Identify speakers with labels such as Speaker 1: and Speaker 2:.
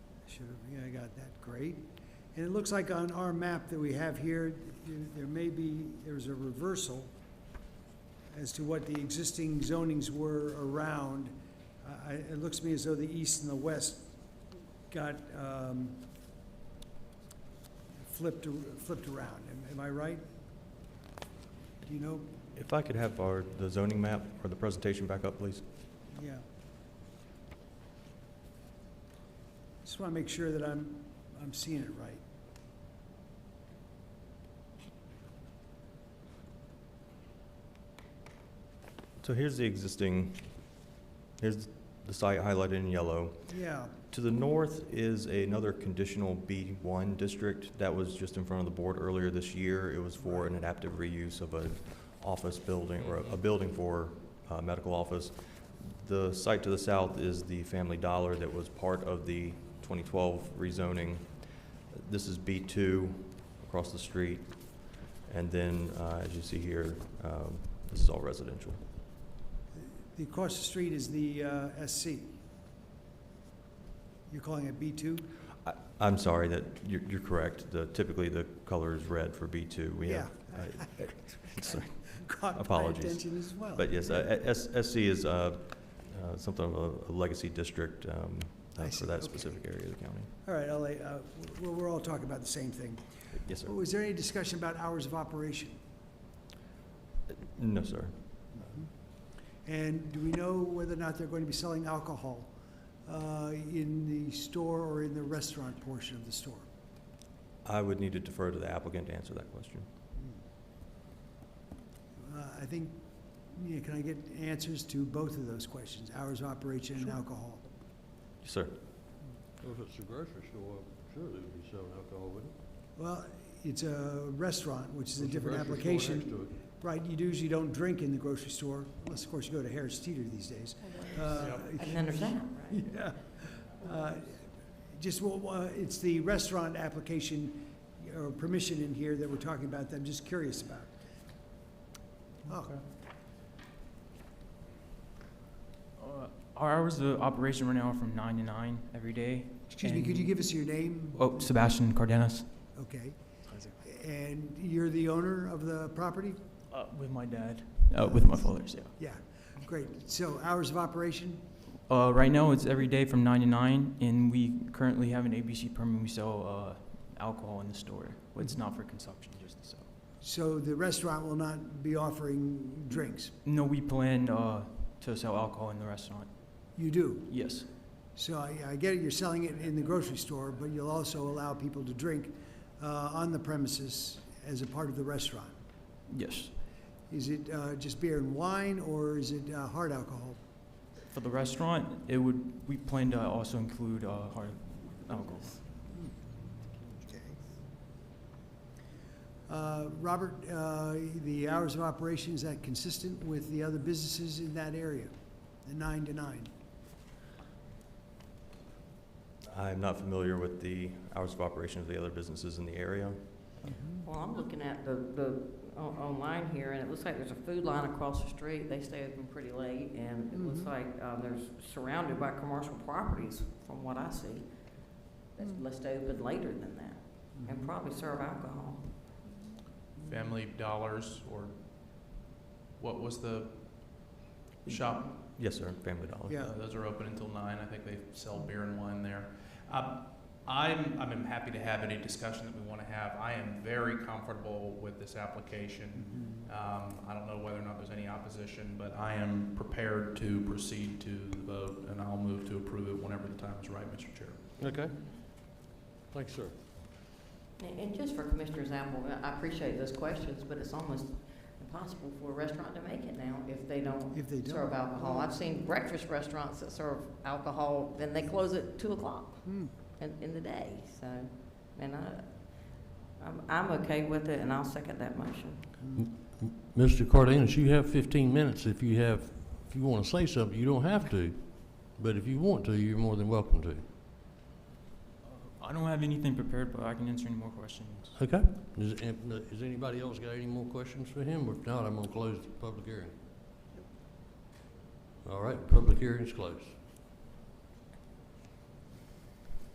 Speaker 1: should have, yeah, I got that, great. And it looks like on our map that we have here, there- there may be, there's a reversal as to what the existing zonings were around. I, I- it looks to me as though the east and the west got, um, flipped, ar- flipped around. Am- Am I right? Do you know?
Speaker 2: If I could have our, the zoning map or the presentation back up, please.
Speaker 1: Yeah. Just want to make sure that I'm, I'm seeing it right.
Speaker 2: So here's the existing, here's the site highlighted in yellow.
Speaker 1: Yeah,
Speaker 2: To the north is another conditional B1 district that was just in front of the board earlier this year. It was for an adaptive reuse of an office building, or a building for uh, medical office. The site to the south is the Family Dollar that was part of the 2012 rezoning. This is B2 across the street. And then, uh, as you see here, um, this is all residential.
Speaker 1: the across the street is the uh, SC. You're calling it B2?
Speaker 2: I- I'm sorry that, you're, you're correct. The, typically, the color is red for B2. We have,
Speaker 1: Yeah.
Speaker 2: I- sorry.
Speaker 1: Caught my
Speaker 2: Apologies.
Speaker 1: attention as well.
Speaker 2: But yes, uh, S- SC is uh, uh, something of a- a legacy district um, uh,
Speaker 1: I see,
Speaker 2: for that
Speaker 1: okay.
Speaker 2: specific area of the county.
Speaker 1: All right, I'll, uh, we're, we're all talking about the same thing.
Speaker 2: Yes, sir.
Speaker 1: Was there any discussion about hours of operation?
Speaker 2: No, sir.
Speaker 1: And do we know whether or not they're going to be selling alcohol uh, in the store or in the restaurant portion of the store?
Speaker 2: I would need to defer to the applicant to answer that question.
Speaker 1: Uh, I think, yeah, can I get answers to both of those questions, hours of operation and
Speaker 3: Sure.
Speaker 1: alcohol?
Speaker 2: Yes, sir.
Speaker 3: Well, If it's a grocery store, sure they would be selling alcohol, wouldn't it?
Speaker 1: Well, it's a restaurant, which is a
Speaker 3: If
Speaker 1: different
Speaker 3: grocery store next
Speaker 1: application.
Speaker 3: to it,
Speaker 1: Right, you usually don't drink in the grocery store, unless, of course, you go to Harris Teeter these days. Uh,
Speaker 4: I can understand, right?
Speaker 1: Yeah. Uh, Just, wa- wa- it's the restaurant application or permission in here that we're talking about that I'm just curious about. Oh,
Speaker 5: Uh, Our hours of operation right now are from nine to nine every day.
Speaker 1: excuse me, could you give us your name?
Speaker 5: Oh, Sebastian Cardenas.
Speaker 1: Okay. And you're the owner of the property?
Speaker 5: Uh, with my dad. Uh, with my fathers, yeah.
Speaker 1: Yeah, great. So hours of operation?
Speaker 5: Uh, right now it's every day from nine to nine, and we currently have an ABC permit. We sell uh, alcohol in the store, but it's not for consumption, just to sell.
Speaker 1: So the restaurant will not be offering drinks?
Speaker 5: No, we plan uh, to sell alcohol in the restaurant.
Speaker 1: You do?
Speaker 5: Yes,
Speaker 1: So I, I get it, you're selling it in the grocery store, but you'll also allow people to drink uh, on the premises as a part of the restaurant.
Speaker 5: yes.
Speaker 1: Is it uh, just beer and wine, or is it uh, hard alcohol?
Speaker 5: For the restaurant, it would. We plan to also include uh, hard alcohol.
Speaker 1: Okay. Uh, Robert, uh, the hours of operation, is that consistent with the other businesses in that area, the nine to nine?
Speaker 2: I am not familiar with the hours of operation of the other businesses in the area.
Speaker 4: Well, I'm looking at the, the, on- online here, and it looks like there's a food line across the street. They stay open pretty late, and it looks
Speaker 1: Mhm.
Speaker 4: like, um, there's surrounded by commercial properties, from what I see. That's
Speaker 1: Mm.
Speaker 4: left open later than that, and probably serve alcohol.
Speaker 6: Family Dollars or what was the shop?
Speaker 2: Yes, sir, Family Dollar.
Speaker 1: Yeah.
Speaker 6: Uh, Those are open until nine. I think they sell beer and wine there. Um, I'm, I'm happy to have any discussion that we want to have. I am very comfortable with this application. Um, I don't know whether or not there's any opposition, but I am prepared to proceed to the vote and I'll move to approve it whenever the time is right, Mr. Chair.
Speaker 3: Okay. Thanks, sir.
Speaker 4: And, and just for Commissioner Zamble, I appreciate those questions, but it's almost impossible for a restaurant to make it now if they don't
Speaker 1: If they
Speaker 4: serve
Speaker 1: don't?
Speaker 4: alcohol. I've seen breakfast restaurants that serve alcohol, then they close at two o'clock.
Speaker 1: Hmm.
Speaker 4: in, in the day, so, and I, I'm, I'm okay with it, and I'll second that motion.
Speaker 3: Mr. Cardenas, you have 15 minutes if you have, if you want to say something. You don't have to, but if you want to, you're more than welcome to.
Speaker 5: I don't have anything prepared, but I can answer any more questions.
Speaker 3: Okay? Does, has eh, anybody else got any more questions for him? If not, I'm going to close the public hearing. All right, public hearing is closed.